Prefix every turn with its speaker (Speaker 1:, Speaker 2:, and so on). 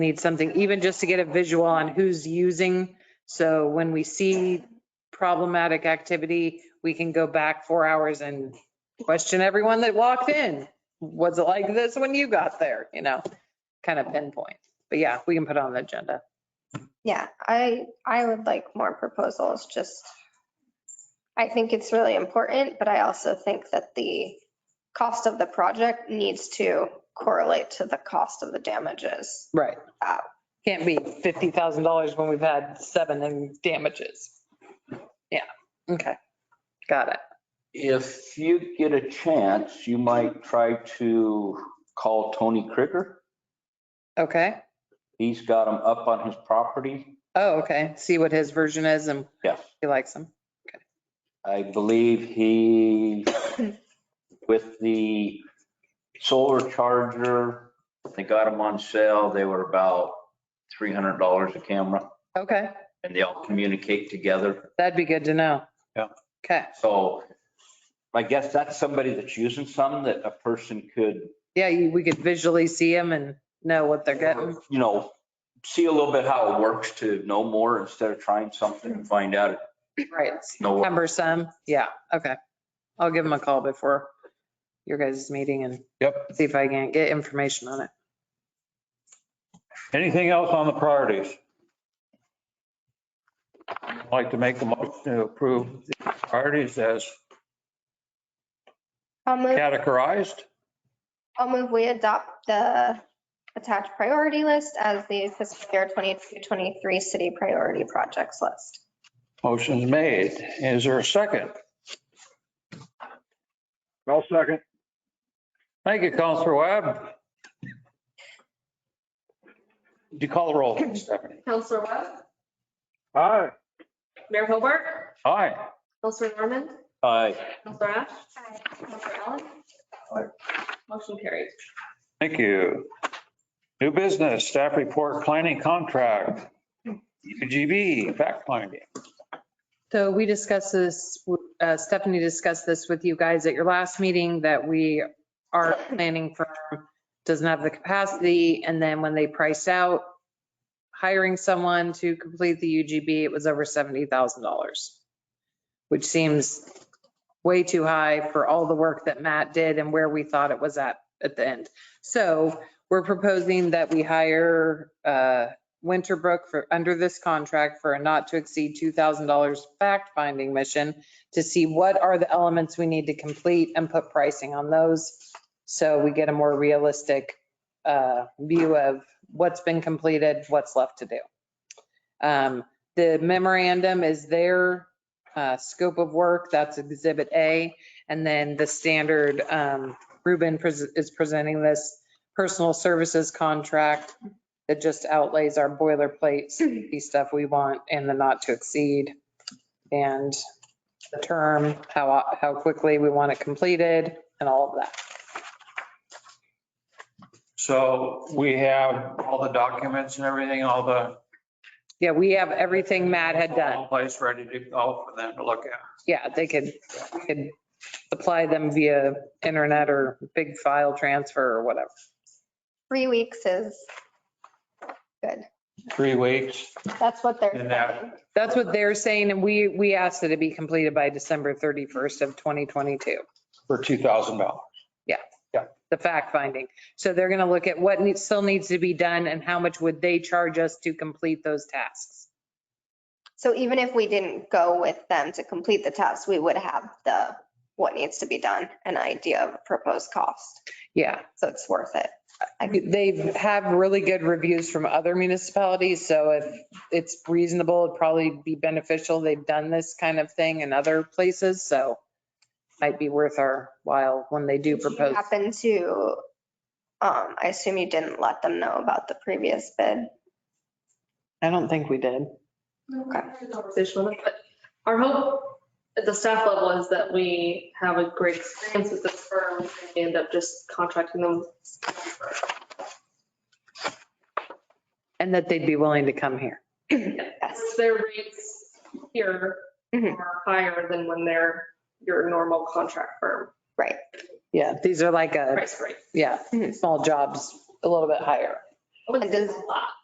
Speaker 1: need something, even just to get a visual on who's using. So when we see problematic activity, we can go back four hours and question everyone that walked in. Was it like this when you got there? You know, kind of pinpoint. But yeah, we can put it on the agenda.
Speaker 2: Yeah, I, I would like more proposals, just, I think it's really important, but I also think that the cost of the project needs to correlate to the cost of the damages.
Speaker 1: Right. Can't be $50,000 when we've had seven in damages. Yeah, okay. Got it.
Speaker 3: If you get a chance, you might try to call Tony Krigger.
Speaker 1: Okay.
Speaker 3: He's got them up on his property.
Speaker 1: Oh, okay. See what his version is and
Speaker 3: Yes,
Speaker 1: he likes them.
Speaker 3: I believe he, with the solar charger, they got them on sale. They were about $300 a camera
Speaker 1: Okay,
Speaker 3: and they all communicate together.
Speaker 1: that'd be good to know.
Speaker 3: Yeah.
Speaker 1: Okay,
Speaker 3: So I guess that's somebody that's using some that a person could
Speaker 1: yeah, you- we could visually see them and know what they're getting.
Speaker 3: you know, see a little bit how it works to know more instead of trying something and find out.
Speaker 1: Right, it's
Speaker 3: No,
Speaker 1: cumbersome. Yeah, okay. I'll give them a call before your guys' meeting and
Speaker 4: Yep.
Speaker 1: see if I can get information on it.
Speaker 4: Anything else on the priorities? I'd Like to make a motion to approve the priorities as
Speaker 2: I'll move,
Speaker 4: categorized?
Speaker 2: I'll move, we adopt the attached priority list as the fiscal year 2023 city priority projects list.
Speaker 4: Motion's made. Is there a second?
Speaker 5: I'll second.
Speaker 4: Thank you, Counselor Webb. Did you call the roll, Stephanie?
Speaker 6: Counselor Webb,
Speaker 5: Aye.
Speaker 6: Mayor Hobart,
Speaker 4: Aye.
Speaker 6: Counselor Norman,
Speaker 3: I,
Speaker 6: Counselor Ash, Counselor Allen. Motion carries.
Speaker 4: Thank you. New business, staff report, planning contract, UGB, fact finding.
Speaker 1: So we discussed this, uh, Stephanie discussed this with you guys at your last meeting, that we, our planning firm doesn't have the capacity, and then when they priced out hiring someone to complete the UGB, it was over $70,000, which seems way too high for all the work that Matt did and where we thought it was at, at the end. So we're proposing that we hire, uh, Winterbrook for, under this contract for a not to exceed $2,000 fact-finding mission to see what are the elements we need to complete and put pricing on those. So we get a more realistic uh, view of what's been completed, what's left to do. Um, The memorandum is their uh, scope of work, that's Exhibit A. And then the standard, um, Ruben pres- is presenting this personal services contract that just outlays our boilerplate, safety stuff we want and the not to exceed. And the term, how, how quickly we want it completed and all of that.
Speaker 4: So we have all the documents and everything, all the.
Speaker 1: Yeah, we have everything Matt had done.
Speaker 4: all Place ready to go for them to look at.
Speaker 1: Yeah, they could, we could apply them via internet or big file transfer or whatever.
Speaker 2: Three weeks is good.
Speaker 4: Three weeks.
Speaker 2: That's what they're
Speaker 4: And that-
Speaker 2: saying.
Speaker 1: That's what they're saying, and we, we asked it to be completed by December 31st of 2022.
Speaker 4: for two thousand dollars.
Speaker 1: the fact finding. So they're going to look at what needs, still needs to be done and how much would they charge us to complete those tasks.
Speaker 2: So even if we didn't go with them to complete the test, we would have the, what needs to be done, an idea of a proposed cost.
Speaker 1: Yeah,
Speaker 2: So it's worth it.
Speaker 1: they have really good reviews from other municipalities, so if it's reasonable, it'd probably be beneficial. They've done this kind of thing in other places, so might be worth our while when they do
Speaker 2: Did you
Speaker 1: propose.
Speaker 2: Happen to, um, I assume you didn't let them know about the previous bid.
Speaker 1: I don't think we did.
Speaker 6: Conversation with it, but our hope at the staff level is that we have a great experience with this firm and we end up just contracting them.
Speaker 1: And that they'd be willing to come here.
Speaker 6: Yes, Their rates here
Speaker 2: Mhm.
Speaker 6: are higher than when they're your normal contract firm
Speaker 1: Yeah, Mm-hmm. these are like a,
Speaker 6: price rate.
Speaker 1: yeah, small jobs, a little bit higher.
Speaker 6: I wouldn't say
Speaker 2: And
Speaker 6: it's a lot.